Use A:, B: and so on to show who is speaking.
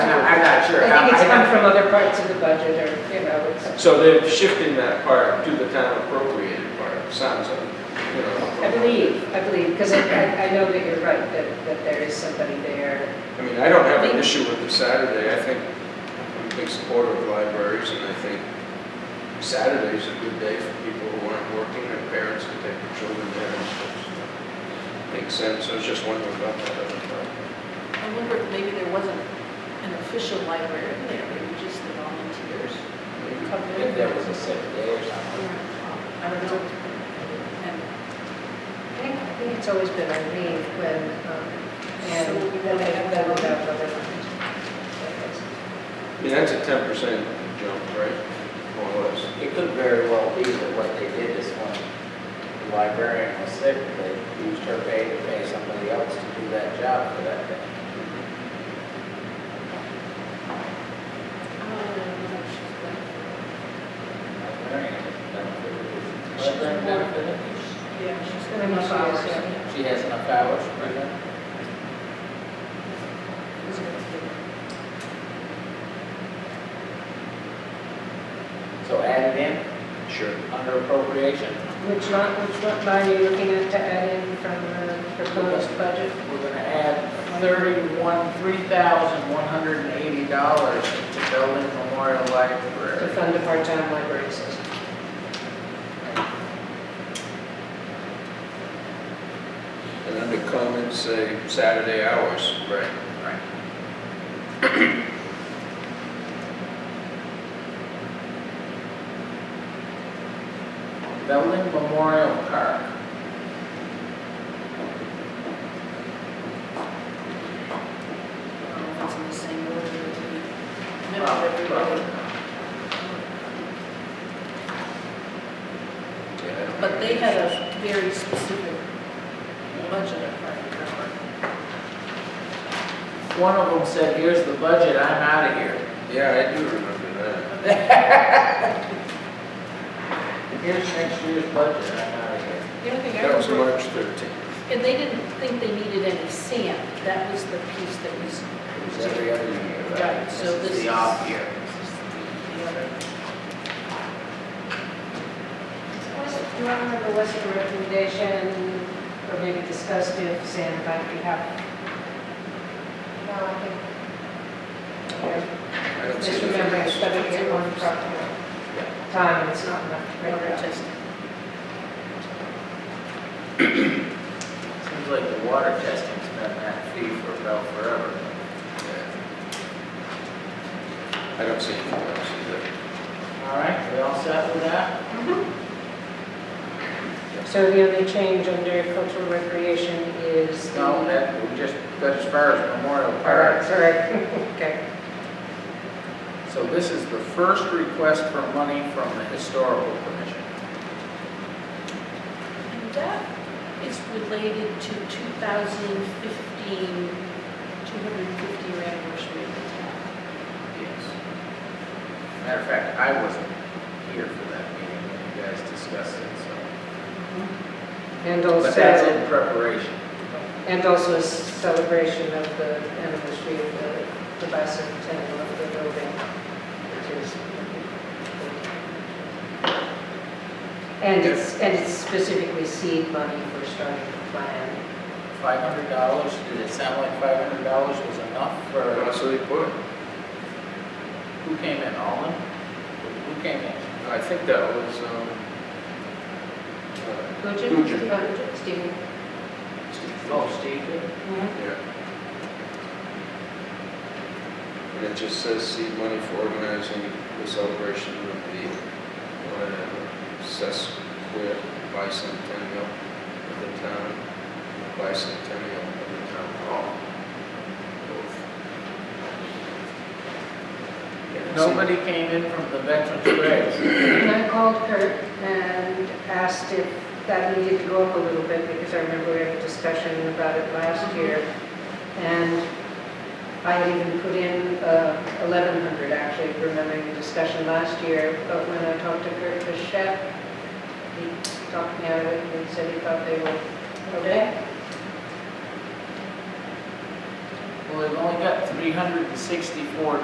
A: sure.
B: Um,
C: I think it's come
A: I-
C: from other parts of the budget or, you know,
A: I-
C: it's-
A: So they're shifting that part to the town appropriated part, sounds like, you know.
C: I believe, I believe, because I, I I know that you're right, that, that there is somebody there.
A: I mean, I don't have an issue with the Saturday, I think, I'm a big supporter of libraries, and I think Saturday's a good day for people who aren't working, and parents can take their children there and stuff. so Makes sense, I was just wondering about that other part.
D: I wonder if maybe there wasn't an official librarian there, maybe just the volunteers. come in.
B: If there was a sick day or something.
D: I don't know. And
C: I think, I think it's always been Irene when, um,
D: So
C: and
D: we
C: then they have that
D: have-
C: without other ones.
A: I mean, that's a ten percent jump, right? More or less.
B: It could very well be that what they did is when the librarian was sick, they used her pay to pay somebody else to do that job for that day. Librarian is
D: uh,
B: benefited.
D: She's
B: Librarian benefited.
D: Yeah, she's
C: I
D: got
C: mean,
D: enough
C: she
D: hours.
C: is, yeah.
B: She has enough hours for that. So add it
A: Sure.
B: in under appropriation.
C: Which line, which one line are you looking at to add in from the proposed budget?
B: We're gonna add thirty-one, three thousand, one hundred and eighty dollars into building Memorial
C: To
B: Library.
C: fund a part-time library assistant.
A: And under comments, say Saturday hours. Right.
B: Right. Building Memorial Park.
D: I don't know if it's in the same order as the- No,
B: Probably, probably.
D: everybody.
A: Yeah.
D: But they had a very specific budget, if I remember.
B: One of them said, here's the budget, I'm out of here.
A: Yeah, I do remember that.
B: Here's next year's budget, I'm out of here.
D: The only thing I
A: That was
D: remember,
A: March thirteenth.
D: and they didn't think they needed any sand, that was the piece that was,
B: It was every other year, right?
D: Right, so this
B: The
D: is-
B: off year.
D: the other.
C: Do you want to remember what's the recommendation, or maybe discussed if Sam might be happy? No, I think.
A: I don't see
C: Just
A: the
C: remembering, it's
A: difference.
C: better to get one property time, it's not enough. to break it up.
B: Seems like the water testing's been that fee for about forever.
A: Yeah. I don't see anything else either.
B: All right, we all set with that?
C: So the only change under cultural recreation is the.
B: No, that, we just got as far as Memorial
C: All right,
B: Park.
C: sorry, okay.
B: So this is the first request for money from the Historical Commission.
D: And that is related to 2015, 250 year anniversary of the town.
B: Yes. Matter of fact, I wasn't here for that meeting when you guys discussed it, so.
C: And
B: But that's
C: also,
B: in preparation.
C: and also a celebration of the anniversary of the, the bicentennial of the building, which is. And it's, and it's specifically seed money for starting the plan.
B: Five hundred dollars, did it sound like five hundred dollars was enough
A: I
B: for,
A: Honestly, put,
B: who came in, Alden? Who came in?
A: I think that was, um, uh,
C: Would
A: you- Would you?
C: Stephen?
B: Oh, Steve did?
A: yeah. And it just says seed money for organizing the celebration of the, uh, sesquicentennial bicentennial of the town, bicentennial of the town hall. Both. Yeah, see-
B: Nobody came in from the veterans' graves.
C: And I called Kurt and asked if that needed to go up a little bit, because I remember we had a discussion about it last year. And I had even put in uh, 1,100, actually, remembering the discussion last year. But when I talked to Kurt Bichette, he talked me out of it and said he thought they were okay.
B: Well, they've only got three hundred and sixty-four